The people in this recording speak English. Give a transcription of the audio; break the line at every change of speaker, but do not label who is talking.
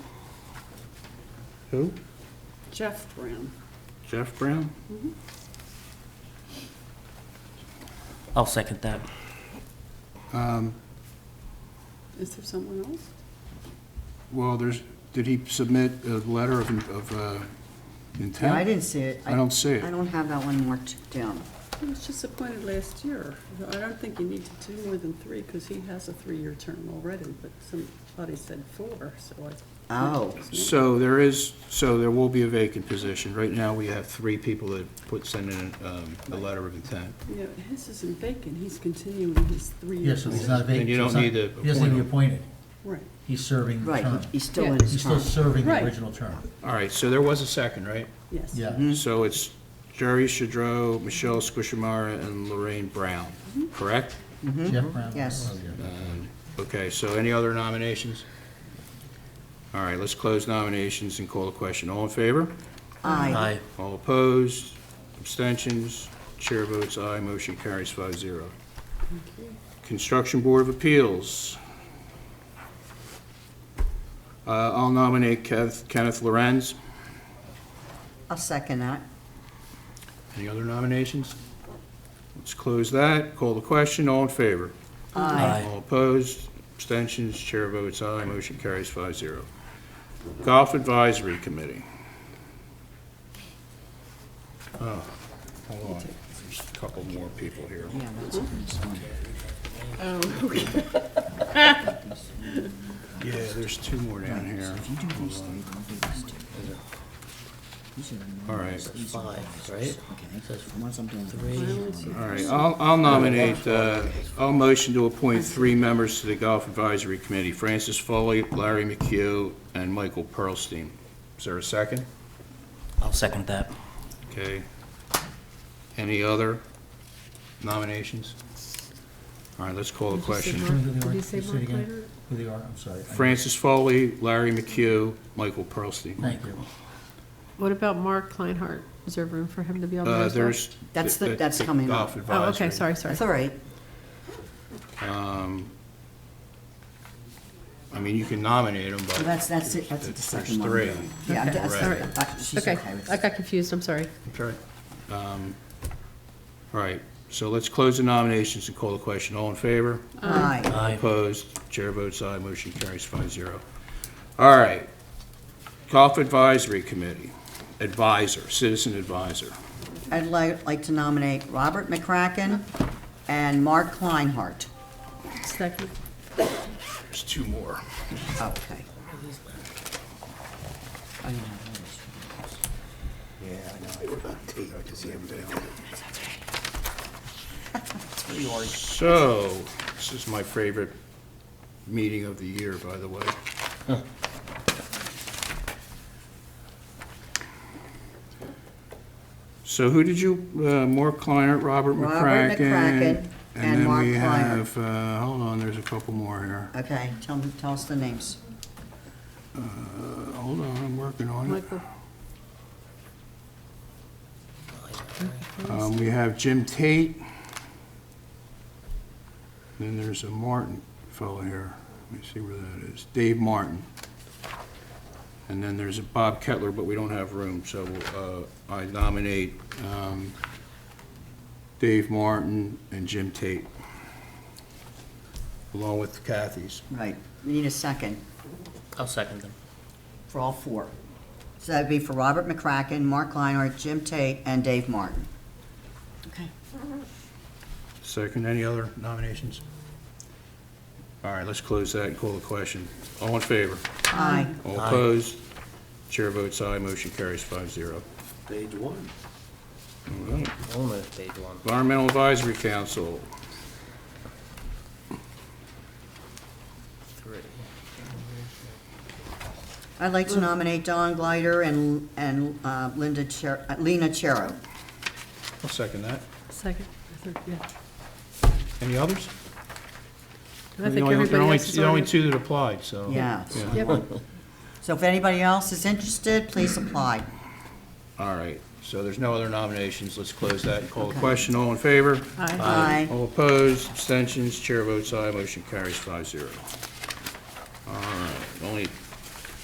Who?
Jeff Brown.
Jeff Brown?
I'll second that.
Um,
Is there someone else?
Well, there's, did he submit a letter of, of uh, intent?
No, I didn't see it.
I don't see it.
I don't have that one marked down.
He was just appointed last year. I don't think you need to do more than three, because he has a three-year term already, but somebody said four, so I.
Oh.
So there is, so there will be a vacant position. Right now, we have three people that put, send in um, a letter of intent.
Yeah, his isn't vacant, he's continuing his three-year.
Yeah, so he's not vacant.
And you
so
don't
it's not-
need to
He doesn't need to be appointed.
Right.
He's serving the
Right,
term.
he- he's still in
Yeah.
his
He's still
term.
serving the
Right.
original term.
All right, so there was a second, right?
Yes.
Yeah.
Mm-hmm.
So it's Jerry Shadrow, Michelle Squishamara, and Lorraine Brown,
Mm-hmm.
correct?
Jeff Brown.
Yes.
Oh, yeah.
Um, Okay, so any other nominations? All right, let's close nominations and call the question. All in favor?
Aye.
Aye.
All opposed? Abstentions? Chair votes aye, motion carries five zero. Construction Board of Appeals. Uh, I'll nominate Kev- Kenneth Lorenz.
I'll second that.
Any other nominations? Let's close that, call the question, all in favor?
Aye.
All opposed, abstentions, chair votes aye, motion carries five zero. Golf Advisory Committee. Oh, hold on, there's a couple more people here.
Yeah, that's
Oh, okay.
Yeah, there's two more down here. All right,
Five, right?
all right, I'll I'll nominate, uh, I'll motion to appoint three members to the Golf Advisory Committee, Francis Foley, Larry McHugh, and Michael Pearlstein. Is there a second?
I'll second that.
Okay. Any other nominations? All right, let's call the question.
Did he say Mark Leiter? Who they are, I'm sorry. I-
Francis Foley, Larry McHugh, Michael Pearlstein.
Thank you.
What about Mark Kleinhardt? Is there room for him to be on there
Uh,
as well?
There's.
Oh, That's the- that's coming
Golf
up.
Oh, okay,
Advisory.
sorry, sorry.
That's all right.
Um, I mean, you can nominate them,
Well,
but
That's, that's it, that's the second one.
there's three.
Yeah, that's,
Okay.
that's- uh, she's
Okay,
okay with
I
it.
got confused, I'm sorry.
Okay. Um, All right, so let's close the nominations and call the question. All in favor?
Aye.
Aye.
Opposed, chair votes aye, motion carries five zero. All right, Golf Advisory Committee, advisor, citizen advisor.
I'd like, like to nominate Robert McCracken and Mark Kleinhardt.
Second.
There's two more.
Okay. I don't have all this.
So, this is my favorite meeting of the year, by the way. So who did you, uh, Mark Kleinert, Robert McCracken?
Robert McCracken and Mark
then we
Kleinert.
have, uh, hold on, there's a couple more here.
Okay, tell me, tell us the names.
Uh, Hold on, I'm working on it.
Michael,
Um, We have Jim Tate. Then there's a Martin fellow here. Let me see where that is. Dave Martin. And then there's a Bob Kettler, but we don't have room, so uh, I nominate um, Dave Martin and Jim Tate, along with Kathy's.
Right, we need a second
I'll second them.
for all four. So that'd be for Robert McCracken, Mark Kleinhardt, Jim Tate, and Dave Martin. Okay.
Second, any other nominations? All right, let's close that and call the question. All in favor?
Aye.
All
Aye.
opposed? Chair votes aye, motion carries five zero.
Page one.
I'll move page one.
Environmental Advisory Council,
Three.
I'd like to nominate Don Glider and, and uh, Linda Cher, uh, Lena Chero.
I'll second that.
second, third, yeah.
Any others?
I
There
think
are only- there are
everybody
only-
else is
There are only
on.
two that applied, so.
Yeah.
Yep,
So if anybody else is interested, please apply.
All right, so there's no other nominations, let's close that and call the question, all in favor?
aye.
Aye.
All opposed, abstentions, chair votes aye, motion carries five zero. All right, only